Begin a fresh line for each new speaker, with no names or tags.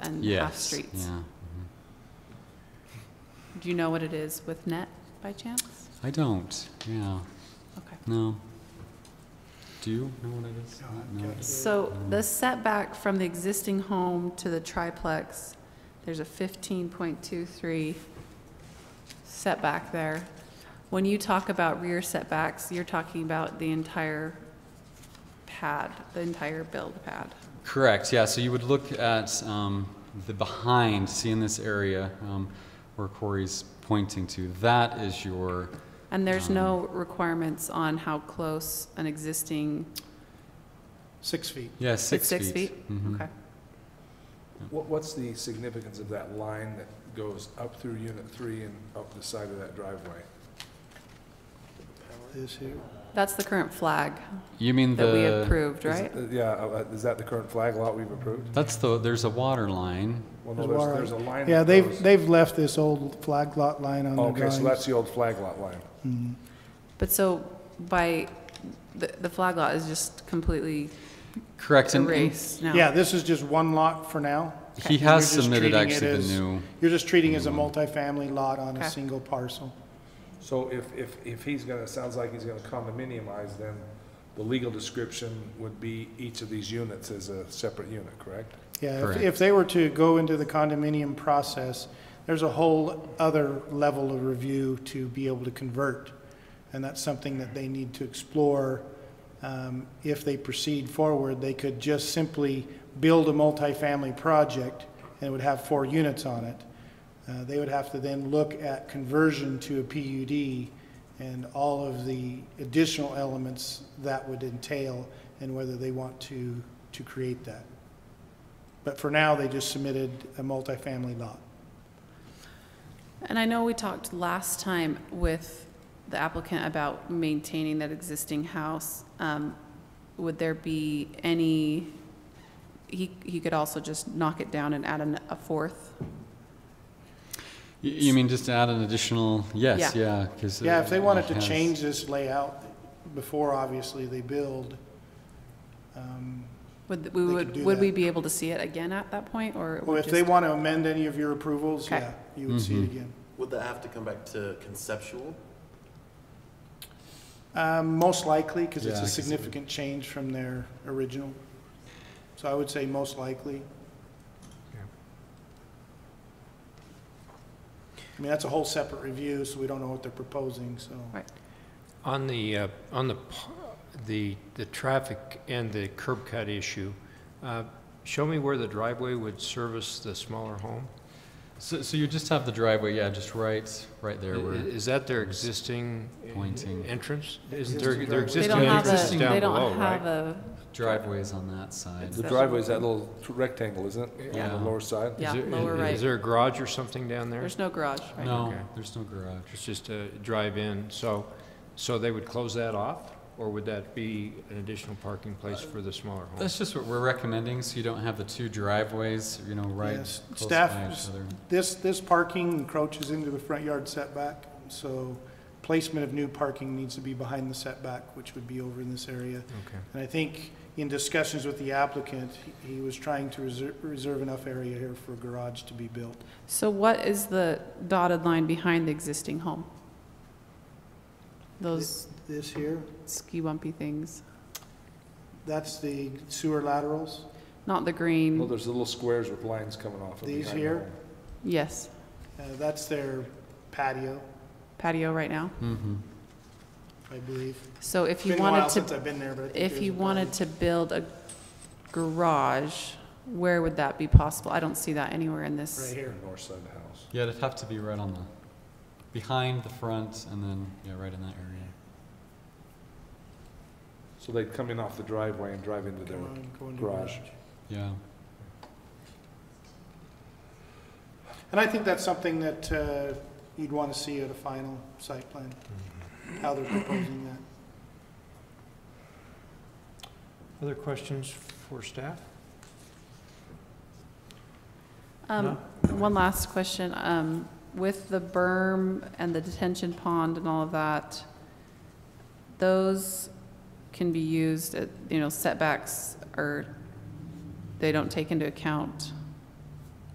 and
Yes.
half streets.
Yeah.
Do you know what it is with net by chance?
I don't. Yeah.
Okay.
No. Do you know what it is? No.
So the setback from the existing home to the triplex, there's a fifteen point two three setback there. When you talk about rear setbacks, you're talking about the entire pad, the entire build pad.
Correct, yeah, so you would look at um, the behind, see in this area um, where Corey's pointing to, that is your,
And there's
Um.
no requirements on how close an existing,
Six feet.
yeah,
it's
six feet.
six feet?
Mhm.
Okay.
What, what's the significance of that line that goes up through unit three and up the side of that driveway?
Is here.
That's the current flag
You mean the...
that we approved,
Is-
right?
uh, Yeah, uh, uh, is that the current flag lot we've approved?
That's the, there's a water line,
Well, no,
There's
there's,
water.
there's a line.
Yeah,
that
they've,
goes-
they've left this old flag lot line on the
Okay,
drawings.
so that's the old flag lot line.
Mhm.
But so by, the, the flag lot is just completely
correct, and- and
erased now.
Yeah, this is just one lot for now.
he
You're
has
just
submitted
treating it
actually
as-
the new, Mm.
You're just treating it as a multifamily lot on
Okay.
a single parcel.
So if, if, if he's gonna, sounds like he's gonna condominiumize, then the legal description would be each of these units as a separate unit, correct?
Yeah, if,
Correct.
if they were to go into the condominium process, there's a whole other level of review to be able to convert. And that's something that they need to explore. Um, if they proceed forward, they could just simply build a multifamily project and it would have four units on it. Uh, they would have to then look at conversion to a PUD and all of the additional elements that would entail and whether they want to, to create that. But for now, they just submitted a multifamily lot.
And I know we talked last time with the applicant about maintaining that existing house. Um, Would there be any, he, he could also just knock it down and add an- a fourth?
you- you mean just to add an additional, yes, yeah, 'cause, uh,
Yeah, if they wanted to
it has-
change this layout before, obviously, they build, um,
Would, we
They
would,
could do
would we
that.
be able to see it again at that point, or? it
well,
would
if they
just-
want to amend any of your approvals,
Okay.
yeah, you would see it
Mhm.
again.
Would that have to come back to conceptual?
Um, Most likely, because
Yeah, I
it's a
guess it would.
significant change from their original. So I would say most likely. I mean, that's a whole separate review, so we don't know what they're proposing, so.
On the, uh, on the, p- the, the traffic and the curb cut issue, uh, show me where the driveway would service the smaller home?
So, so you just have the driveway, yeah, just right, right
I-
there
i-
where,
Is that their existing
Pointing.
entrance? Isn't
Existing
there, their
driveway.
They
existing
don't have
entrance
a,
is
they
down
don't
below,
have
right?
a,
driveway's on that side.
The driveway's that little rectangle, isn't it, on
Yeah.
the lower side?
Is
yeah,
there-
lower
is-
right.
Is there a garage or something down there?
There's no garage, right?
No,
Okay.
there's no garage.
It's just a drive-in, so, so they would close that off? Or would that be an additional parking place for the smaller home?
That's just what we're recommending, so you don't have the two driveways, you know, right
Yes.
close
Staff-
by each other.
This, this parking encroaches into the front yard setback, so placement of new parking needs to be behind the setback, which would be over in this area.
Okay.
And I think in discussions with the applicant, he he was trying to reserve, reserve enough area here for a garage to be built.
So what is the dotted line behind the existing home? Those
This here,
ski bumpy things,
that's the sewer laterals.
not the green.
Well, there's little squares with lines coming off of
These
behind the
here?
home.
Yes,
Uh, that's their patio,
patio right now.
Mm-hmm.
I believe.
So if
It's
you
been a while
wanted
since
to,
I've been there, but I think
if
there's
you
a
wanted to build a garage, where would that be possible? I don't see that anywhere in
patio
this.
Right here.
North side of the house.
Yeah, it'd have to be right on the, behind the front, and then, yeah, right in that area.
So they'd come in off the driveway and drive into their,
Go on, go into
garage.
Yeah.
And I think that's something that uh, you'd want to see at a final site plan, how they're proposing that.
Other questions for staff?
Um, one last question, um, with the berm and the detention pond and all of that, those uh, can be used at, you know, setbacks are, they don't take into account